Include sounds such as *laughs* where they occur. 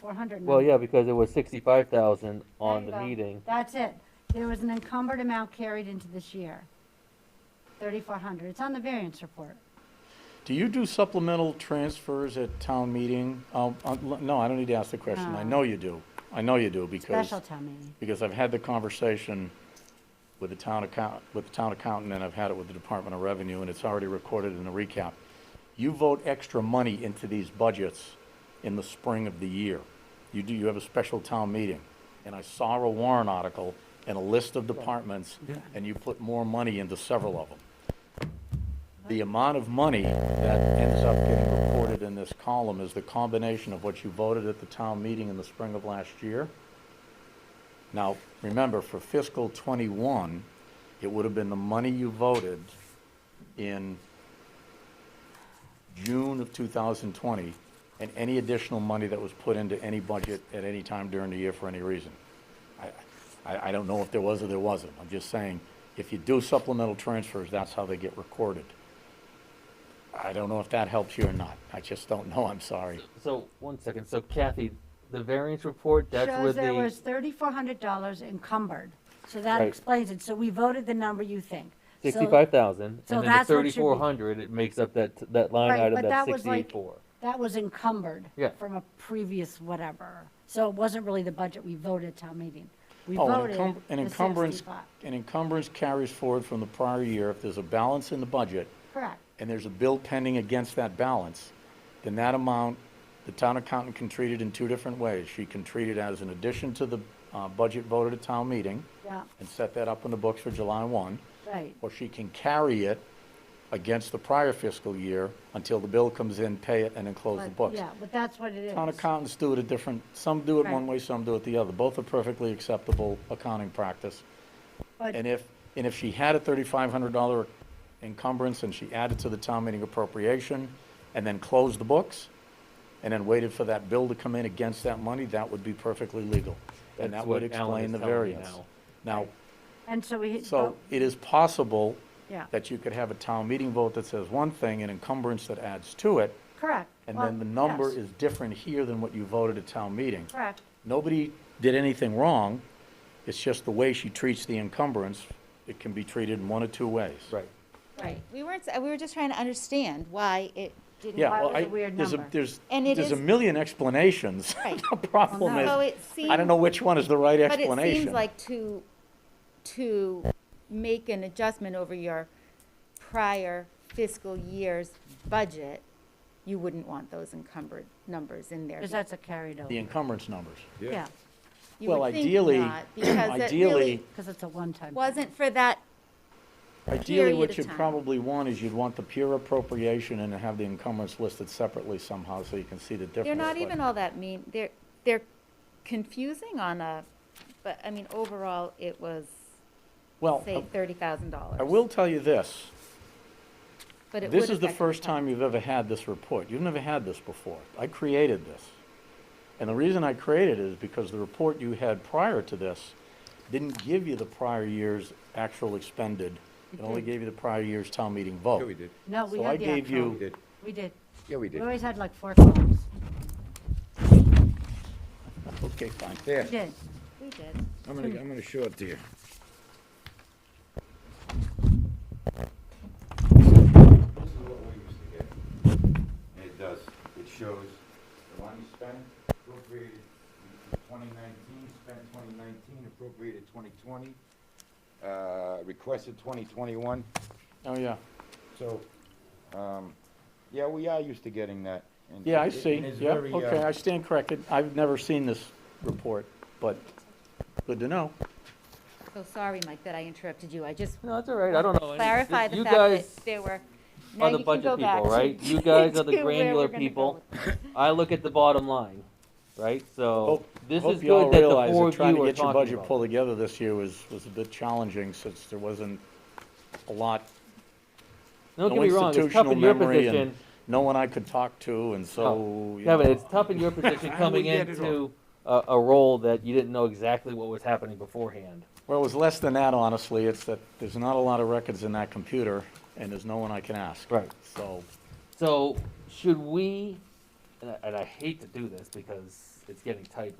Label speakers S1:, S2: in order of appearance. S1: four hundred
S2: Well,
S1: number.
S2: yeah, because it was sixty-five thousand
S1: There
S2: on
S1: you
S2: the
S1: go.
S2: meeting.
S1: That's it. There was an encumbered amount carried into this year. Thirty-four hundred. It's on the variance report.
S3: Do you do supplemental transfers at town meeting? Um, uh, l- No, I don't need to ask the question. I
S1: No.
S3: know you do. I know you do because,
S1: Special town meeting.
S3: because I've had the conversation with the town account, with the town accountant and I've had it with the Department of Revenue and it's already recorded in the recap. You vote extra money into these budgets in the spring of the year. You do, you have a special town meeting. And I saw a warrant article and a list of departments and you put more money into several of them the amount of money that ends up getting reported in this column is the combination of what you voted at the town meeting in the spring of last year. Now, remember, for fiscal '21, it would have been the money you voted in June of 2020, and any additional money that was put into any budget at any time during the year for any reason. I- I, I don't know if there was or there wasn't. I'm just saying, if you do supplemental transfers, that's how they get recorded. I don't know if that helps you or not. I just don't know, I'm sorry.
S2: So, one second, so Kathy, the variance report, that's where
S1: Shows
S2: the.
S1: there was thirty-four hundred dollars encumbered. So that
S2: Right.
S1: explains it. So we voted the number you think. So-
S2: Sixty-five thousand,
S1: so
S2: and then the
S1: that's what should be-
S2: thirty-four hundred, it makes up that, that line
S1: Right,
S2: item,
S1: but
S2: that's
S1: that was like-
S2: sixty-four.
S1: That was encumbered.
S2: Yeah.
S1: From a previous whatever. So it wasn't really the budget we voted at town meeting. We
S3: Oh, an
S1: voted
S3: encum- an
S1: the
S3: encumbrance-
S1: 65.
S3: An encumbrance carries forward from the prior year. If there's a balance in the budget
S1: Correct.
S3: and there's a bill pending against that balance, then that amount, the town accountant can treat it in two different ways. She can treat it as an addition to the uh, budget voted at town meeting
S1: Yeah,
S3: and set that up in the books for July 1.
S1: right.
S3: or she can carry it against the prior fiscal year until the bill comes in, pay it, and then close the
S1: But-
S3: books.
S1: Yeah, but that's what it is.
S3: Town accountants do it a different, some do it one
S1: Right.
S3: way, some do it the other. Both are perfectly acceptable accounting practice.
S1: But-
S3: And if, and if she had a thirty-five hundred dollar encumbrance and she added to the town meeting appropriation and then closed the books and then waited for that bill to come in against that money, that would be perfectly legal. And
S2: That's
S3: that would
S2: what Alan
S3: explain
S2: is
S3: the
S2: telling me
S3: variance.
S2: now.
S3: Now,
S1: And so we. oh,
S3: so
S1: vote-
S3: it is possible
S1: Yeah,
S3: that you could have a town meeting vote that says one thing, an encumbrance that adds to it,
S1: correct.
S3: and
S1: Well,
S3: then the number
S1: yes,
S3: is different here than what you voted at town meeting.
S1: Correct.
S3: Nobody did anything wrong, it's just the way she treats the encumbrance, it can be treated in one of two ways.
S2: Right.
S1: Right.
S4: We weren't, s- we were just trying to understand why it didn't.
S3: Yeah,
S1: Why
S3: well,
S1: was it
S3: I,
S1: a weird
S3: there's a,
S1: number?
S3: there's,
S4: And it
S3: there's a
S4: is-
S3: million explanations. *laughs*
S4: Right.
S3: The problem
S1: Well, no.
S4: So
S3: is,
S4: it
S3: I don't
S4: seemed-
S3: know which one is the right
S4: But it
S3: explanation.
S4: seems like to, to make an adjustment over your prior fiscal year's budget, you wouldn't want those encumbered numbers in there.
S1: Because that's a carried
S3: The
S1: over.
S3: encumbrance numbers.
S1: Yeah,
S4: You would
S3: well,
S4: think
S3: ideally-
S4: not, Because it
S3: Ideally,
S4: really
S1: because it's a one-time.
S4: wasn't for that,
S3: Ideally,
S4: period
S3: what
S4: of
S3: you'd
S4: time.
S3: probably want is you'd want the pure appropriation and have the encumbrance listed separately somehow so you can see the difference.
S4: they're not
S3: but-
S4: even all that mean, they're, they're confusing on a, but I mean, overall, it was,
S3: Well, uh,
S4: say, thirty thousand dollars.
S3: I will tell you this.
S4: But it
S3: This
S4: would
S3: is the
S4: affect
S3: first
S4: town.
S3: time you've ever had this report. You've never had this before. I created this. And the reason I created it is because the report you had prior to this didn't give you the prior year's actual expended. It only gave you the prior year's town meeting vote.
S5: Yeah, we did.
S1: No, we
S3: So I
S1: had the
S3: gave you.
S1: actual.
S5: Did.
S1: We did.
S5: Yeah, we
S1: We
S5: did.
S1: always had like four columns.
S3: Okay, fine.
S5: Yeah,
S1: We did.
S4: We did.
S5: I'm gonna, I'm gonna show it to you.
S6: This is what we used to get. And it does, it shows the money spent, appropriated twenty nineteen, spent twenty nineteen, appropriated twenty twenty, uh, requested twenty twenty-one.
S3: Oh, yeah.
S6: So, um, yeah, we are used to getting that. and
S3: Yeah, I
S6: it- it-
S3: see.
S6: and it's
S3: Yeah,
S6: very, uh,
S3: okay, I stand corrected. I've never seen this report, but good to know.
S4: So sorry, Mike, that I interrupted you. I just
S2: No, that's all right, I don't know. any-
S4: clarify
S2: you
S4: the fact
S2: guys-
S4: that there were, now
S2: are the
S4: you can
S2: budget
S4: go
S2: people,
S4: back. to- *laughs*
S2: right? You guys are the
S4: to where we're
S2: granular
S4: gonna go
S2: people.
S4: with this.
S2: I look at the bottom line, right? So
S3: Hope-
S2: this
S3: hope
S2: is
S3: you all
S2: good that the
S3: realize
S2: four
S3: that
S2: of you
S3: trying to
S2: are
S3: get your
S2: talking
S3: budget pulled
S2: about. it.
S3: together this year was, was a bit challenging since there wasn't a lot,
S2: Don't
S3: no
S2: get me wrong, it's tough
S3: institutional
S2: in your
S3: memory and
S2: position.
S3: no one I could talk to and so. you
S2: Kevin,
S3: know,
S2: Oh. it's tough
S3: *laughs*
S2: in your position
S5: I
S2: coming
S5: wouldn't get it
S2: into a, a role that you didn't know exactly what was happening beforehand.
S3: Well, it was less than that, honestly. It's that there's not a lot of records in that computer and there's no one I can ask.
S2: Right.
S3: So,
S2: So should we, and I, and I hate to do this because it's getting tight